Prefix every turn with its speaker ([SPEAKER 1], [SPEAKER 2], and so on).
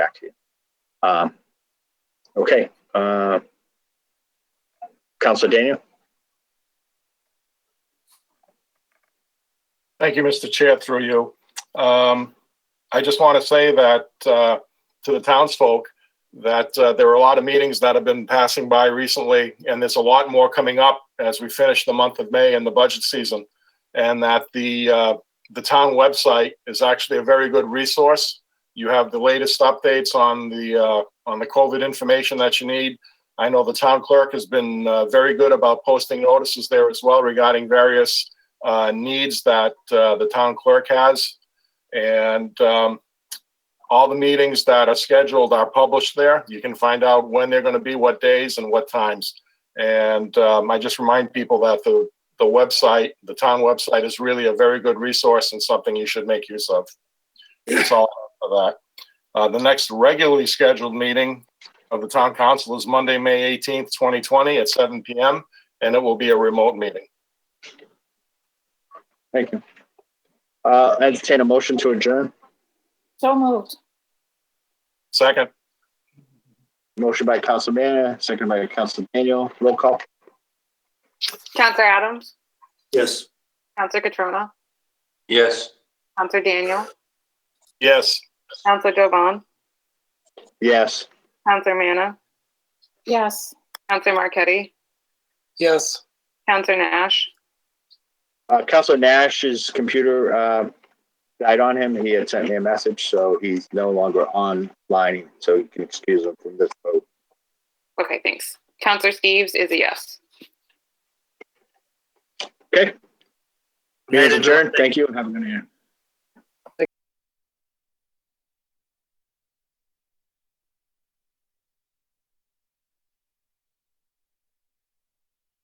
[SPEAKER 1] back to you. Um, okay. Uh, Counselor Daniel?
[SPEAKER 2] Thank you, Mr. Chair, through you. Um, I just want to say that, uh, to the townsfolk, that, uh, there are a lot of meetings that have been passing by recently, and there's a lot more coming up as we finish the month of May and the budget season. And that the, uh, the town website is actually a very good resource. You have the latest updates on the, uh, on the COVID information that you need. I know the town clerk has been, uh, very good about posting notices there as well regarding various, uh, needs that uh, the town clerk has. And um, all the meetings that are scheduled are published there. You can find out when they're going to be, what days and what times. And um, I just remind people that the, the website, the town website is really a very good resource and something you should make use of. That's all of that. Uh, The next regularly scheduled meeting of the town council is Monday, May 18th, 2020 at 7 PM. And it will be a remote meeting.
[SPEAKER 1] Thank you. Uh, entertain a motion to adjourn.
[SPEAKER 3] So moved.
[SPEAKER 2] Second,
[SPEAKER 1] Motion by Counselor Manna, second by Counselor Daniel. Roll call.
[SPEAKER 4] Counselor Adams,
[SPEAKER 5] Yes.
[SPEAKER 4] Counselor Catrona,
[SPEAKER 5] Yes.
[SPEAKER 4] Counselor Daniel,
[SPEAKER 2] yes.
[SPEAKER 4] Counselor Jovan,
[SPEAKER 1] Yes.
[SPEAKER 4] Counselor Manna,
[SPEAKER 3] Yes.
[SPEAKER 4] Counselor Marquetti,
[SPEAKER 5] Yes.
[SPEAKER 4] Counselor Nash,
[SPEAKER 1] Uh, Counselor Nash's computer uh, died on him. He had sent me a message, so he's no longer online, so you can excuse him from this vote.
[SPEAKER 4] okay, thanks. Counselor Steves is a yes.
[SPEAKER 1] Meeting adjourned. Thank you and have a good night.